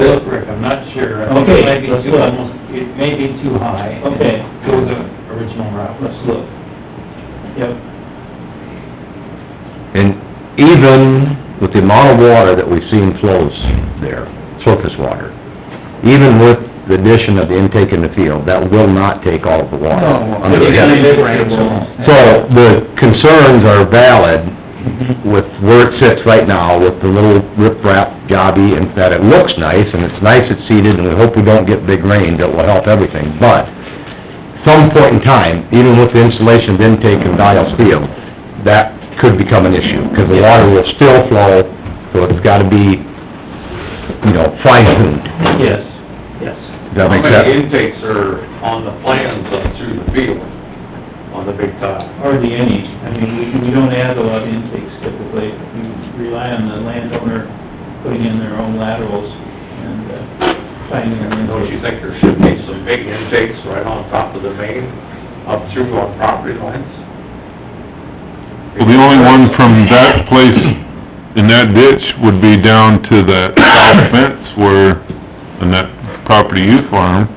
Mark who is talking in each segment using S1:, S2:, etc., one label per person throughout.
S1: Look, Rick, I'm not sure. I think
S2: Okay,
S1: It might be
S2: let's
S1: too,
S2: look.
S1: almost, it may be too high.
S2: Okay.
S1: Go the original route.
S2: Let's look. Yep,
S3: And even with the amount of water that we've seen flows there, surface water, even with the addition of the intake in the field, that will not take all of the water.
S2: No.
S3: under the-
S2: Yeah.
S3: So the concerns are valid with where it sits right now, with the little riprap jobby, and that it looks nice, and it's nice it's seeded, and we hope we don't get big rain, that will help everything, but some point in time, even with the installation of intake in Dial's field, that could become an issue, because the water will still flow, so it's gotta be, you know, fine tuned.
S2: yes, yes.
S3: Does that make
S4: How many
S3: sense?
S4: intakes are on the plans up through the field, on the big tile?
S2: Hardly any, I mean, we, we don't add a lot of intakes typically, we rely on the landowner putting in their own laterals and, uh, finding their
S4: Don't you
S2: intakes.
S4: think there should be some big intakes right on top of the main, up through our property lines?
S5: Well, the only one from that place in that ditch would be down to that south fence where, on that property you farm.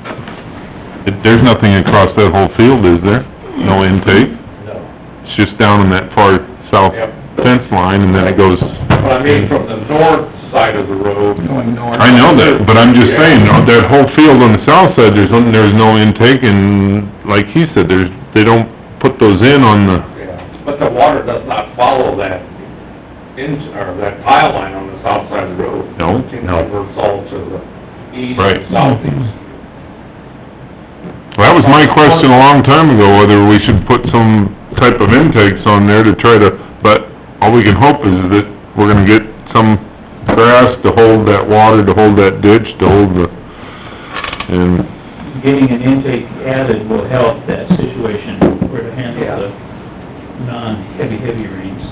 S5: It- There's nothing across that whole field, is there?
S4: Mm-hmm.
S5: No intake?
S4: No.
S5: It's just down in that far south
S4: Yep.
S5: fence line and then it goes,
S4: But I mean, from the north side of the road. Going north.
S5: I know that, but I'm just saying, no, that whole field on the south side, there's, no- there's no intake and like he said, there's, they don't put those in on the,
S4: But the water does not follow that in, or that tile line on the south side of the road.
S5: No,
S4: It
S3: no.
S4: diverts all to the east
S5: Right.
S4: and southeast.
S5: Well, That was my question a long time ago, whether we should put some type of intakes on there to try to, but all we can hope is that we're gonna get some grass to hold that water, to hold that ditch, to hold the, and,
S2: Getting an intake added will help that situation where to handle the non-heavy, heavy rains.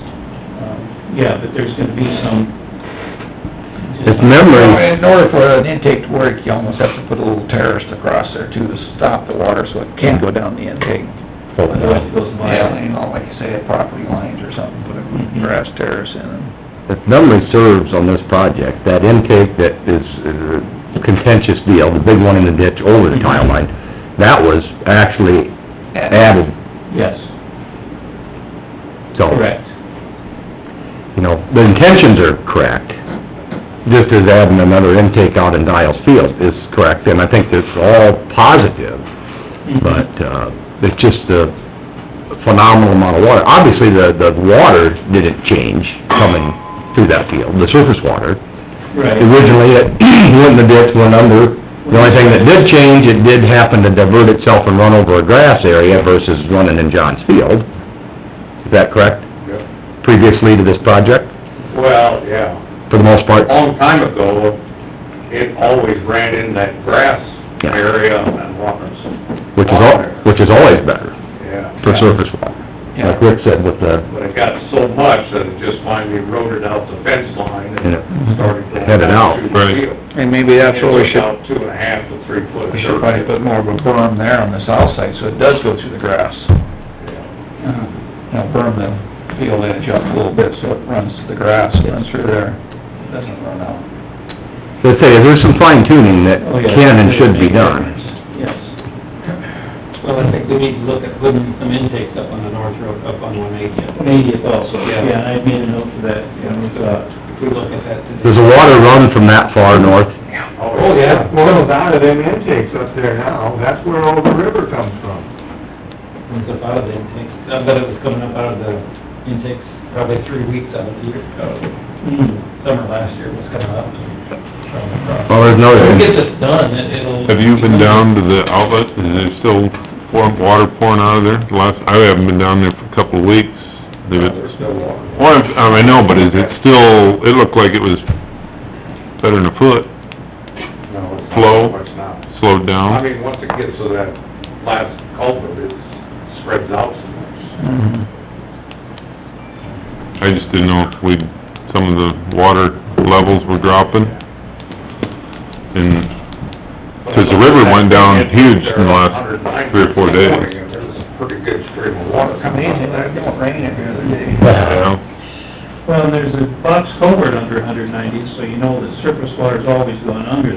S2: Um, Yeah, but there's gonna be some.
S3: It's memory.
S6: Well, In order for an intake to work, you almost have to put a little terrace across there too, to stop the water, so it can go down the intake.
S2: Otherwise it goes by.
S6: Yeah, you know, like you say, property lines or something, put a grass terrace in and...
S3: If memory serves on this project, that intake that is uh, contentious deal, the big one in the ditch over the tile line, that was actually added,
S2: Yes,
S3: so,
S2: correct.
S3: you know, the intentions are correct. Just as adding another intake out in Dial's field is correct, and I think that's all positive, but, uh, it's just a phenomenal amount of water. Obviously, the, the water didn't change coming through that field, the surface water,
S2: Right,
S3: originally, it went in the ditch, went under. The only thing that did change, it did happen to divert itself and run over a grass area versus running in John's field. Is that correct?
S4: Yep.
S3: Previously to this project,
S4: Well, yeah.
S3: for the most
S4: A
S3: part?
S4: long time ago, it always ran in that grass
S3: Yeah.
S4: area and waters.
S3: Which is al, which is always better
S4: Yeah.
S3: for surface water. Like Rick said with the,
S4: But it got so much that it just finally eroded out the fence line and
S3: And it
S4: started going
S3: headed
S4: out
S3: out.
S4: to the
S5: Right.
S4: field.
S6: Mm-hmm. And maybe that's what
S4: It was
S6: we should,
S4: About two and a half to three foot.
S6: we should probably put more of a berm there on the south side, so it does go through the grass. Uh-huh. You know, berm the field edge up a little bit, so it runs to the grass, runs through there, doesn't run out.
S3: let's say, there's some fine tuning that
S2: Oh, yeah.
S3: can and should be done.
S2: yes.
S1: Well, I think we need to look at putting some intakes up on the north road, up on one eighty.
S2: Eightieth also,
S1: Yeah.
S2: yeah, I made a note for that, yeah, we thought.
S1: If we look at that today.
S3: Does the water run from that far north?
S4: Oh, yeah.
S7: Boils out of them intakes up there now, that's where all the river comes from.
S1: comes up out of the intakes, I bet it was coming up out of the intakes probably three weeks out of the year, uh, summer last year was coming up. from across.
S3: Well, there's no...
S1: If we get this done, it- it'll...
S5: have you been down to the outlet? Is there still pouring, water pouring out of there? Last, I haven't been down there for a couple of weeks. They've been-
S4: There's no water.
S5: Well, I- I know, but is it still, it looked like it was better than a foot,
S4: No, it's not
S5: Flow.
S4: much now.
S5: slowed down?
S4: I mean, once it gets to that last culvert, it spreads out so much.
S1: Mm-hmm.
S5: I just didn't know if we'd, some of the water levels were dropping. And, 'cause the river went down huge in the last three or four days.
S4: There was a pretty good stream of water coming out of that.
S6: don't rain every other day.
S5: you know,
S2: Well, and there's a box culvert under 190, so you know that surface water's always going under